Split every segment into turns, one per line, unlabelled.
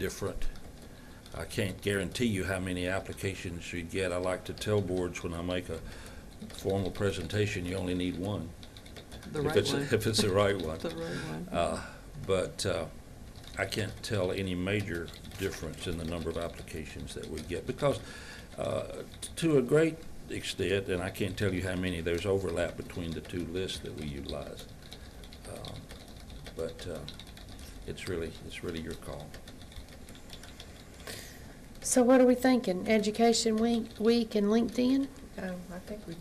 different. I can't guarantee you how many applications you'd get. I like to tell boards when I make a formal presentation, you only need one.
The
if
right
it's-
one.
If it's the right one.
The right one.
Uh, But uh, I can't tell any major difference in the number of applications that we get, because uh, to a great extent, and I can't tell you how many, there's overlap between the two lists that we utilize. Um, But uh, it's really, it's really your call.
So what are we thinking? Education Week, Week and LinkedIn?
Um, I think we,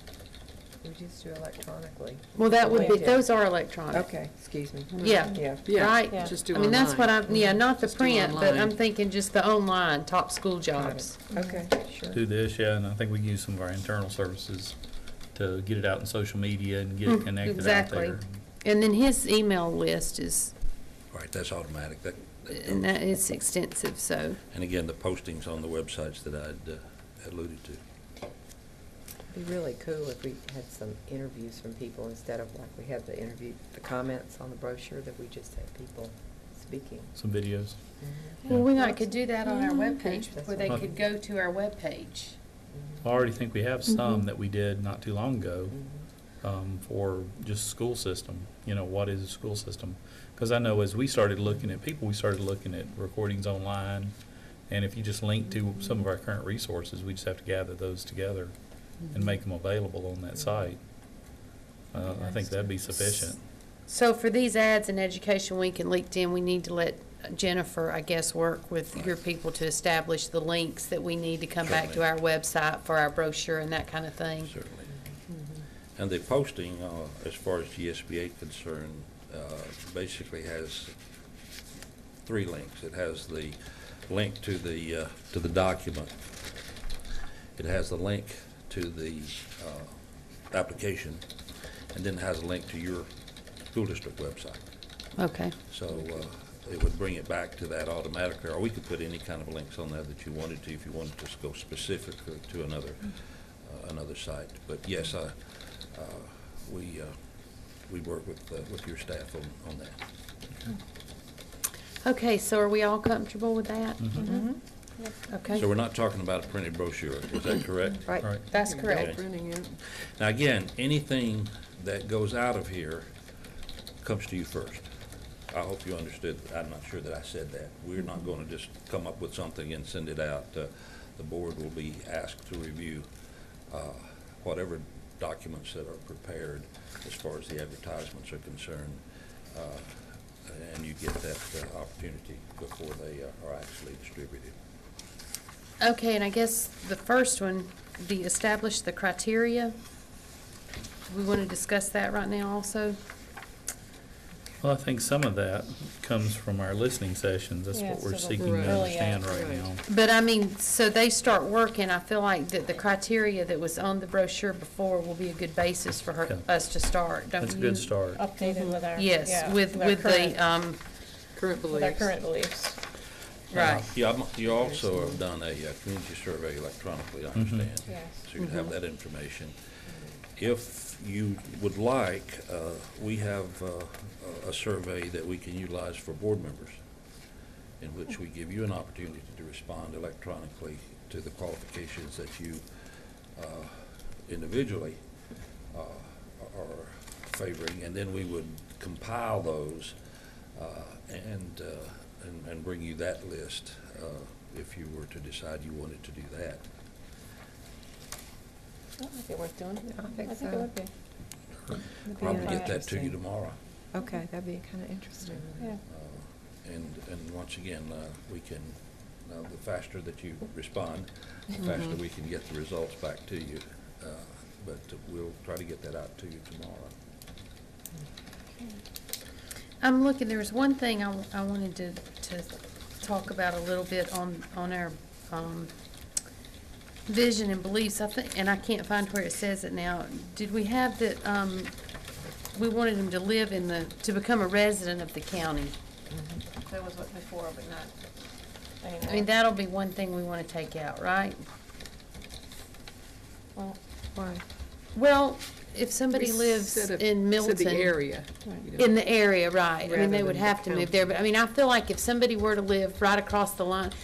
we just do electronically.
Well, that would be,
Yeah.
those are electronic.
Okay, excuse me.
Yeah.
Yeah.
Yeah,
Right?
Yeah.
Just do
I mean, that's what
online.
I'm, yeah, not the
Just do
print, but I'm
online.
thinking just the online, top school
Got
jobs.
it. Okay, Mm-hmm. sure.
do this, yeah, and I think we can use some of our internal services to get it out in social media and get
Mm,
it connected out
exactly.
there.
And then his email list is,
Right, that's automatic. That- that
and
goes.
that is extensive, so.
And again, the postings on the websites that I'd uh, alluded to.
It'd be really cool if we had some interviews from people instead of like we had the interview, the comments on the brochure that we just had people speaking.
Some videos.
Well,
Yeah.
we might could do that on our
Okay.
webpage,
That's
where they
fine.
could go to our webpage.
I already think we have
Mhm.
some that we did not too long ago
Mhm.
um, for just school system. You know, what is the school system? Because I know as we started looking at people, we started looking at recordings online. And if you just link to some of our current resources, we just have to gather those together
Mm-hmm.
and make them available on that site. Uh, I think that'd be sufficient.
So for these ads in Education Week and LinkedIn, we need to let Jennifer, I guess, work with your people to establish the links that we need to come back to our website for our brochure and that kind of thing.
Certainly. And the posting, uh, as far as GSBA concerned, uh, basically has three links. It has the link to the, uh, to the document. It has the link to the uh, application, and then it has a link to your school district website.
Okay.
So uh, it would bring it back to that automatically, or we could put any kind of links on there that you wanted to, if you wanted to just go specifically to another, uh, another site. But yes, I, uh, we, uh, we work with, uh, with your staff on, on that.
Okay, so are we all comfortable with that? Mm-hmm.
Mhm.
Mm-hmm.
Mhm.
Okay,
Mm-hmm. So we're not talking about a printed brochure, is that correct?
Right.
All right.
that's
You're
correct.
Printing it.
Now, again, anything that goes out of here comes to you first. I hope you understood, I'm not sure that I said that. We're not going to just come up with something and send it out. Uh, The board will be asked to review uh, whatever documents that are prepared as far as the advertisements are concerned. uh, And you get that uh, opportunity before they uh, are actually distributed.
Okay, and I guess the first one, the establish the criteria. We want to discuss that right now also?
Well, I think some of that comes from our listening sessions. That's
Yeah,
what we're
so the
seeking
Right.
to
early
understand
act,
right
right.
now.
But I mean, so they start working, I feel like that the criteria that was on the brochure before will be a good basis for her,
Okay.
us to start, don't you?
That's a good start.
updated with our,
Yes,
yeah,
with,
our
with
current-
the, um,
Current
With our
beliefs.
current beliefs.
right.
Yeah, I'm- Uh, you also have done a uh, community survey electronically, I understand.
Yes.
So you have that information. If you would like, uh, we have uh, a- a survey that we can utilize for board members, in which we give you an opportunity to respond electronically to the qualifications that you uh, individually uh, are favoring, and then we would compile those uh, and, uh, and- and bring you that list uh, if you were to decide you wanted to do that.
That might be worth doing.
I think
it
so.
would be.
Probably
Yeah.
get that to you tomorrow.
Okay, that'd be kind of interesting.
Yeah.
Uh, And, and once again, uh, we can, uh, the faster that you respond, the faster we can get the results back to you. Uh, But we'll try to get that out to you tomorrow.
I'm looking, there was one thing I, I wanted to, to talk about a little bit on, on our, um, vision and beliefs, I think, and I can't find where it says it now. Did we have that, um, we wanted them to live in the, to become a resident of the county? That was what before, but not. I mean, that'll be one thing we wanna take out, right?
Well,
Why?
Well, if somebody
We
lives
said a-
in Milton.
Said the area. you know.
In the area, right. I mean,
Rather
they would
than the
have to move there,
county.
but I mean, I feel like if somebody were to live right across the line,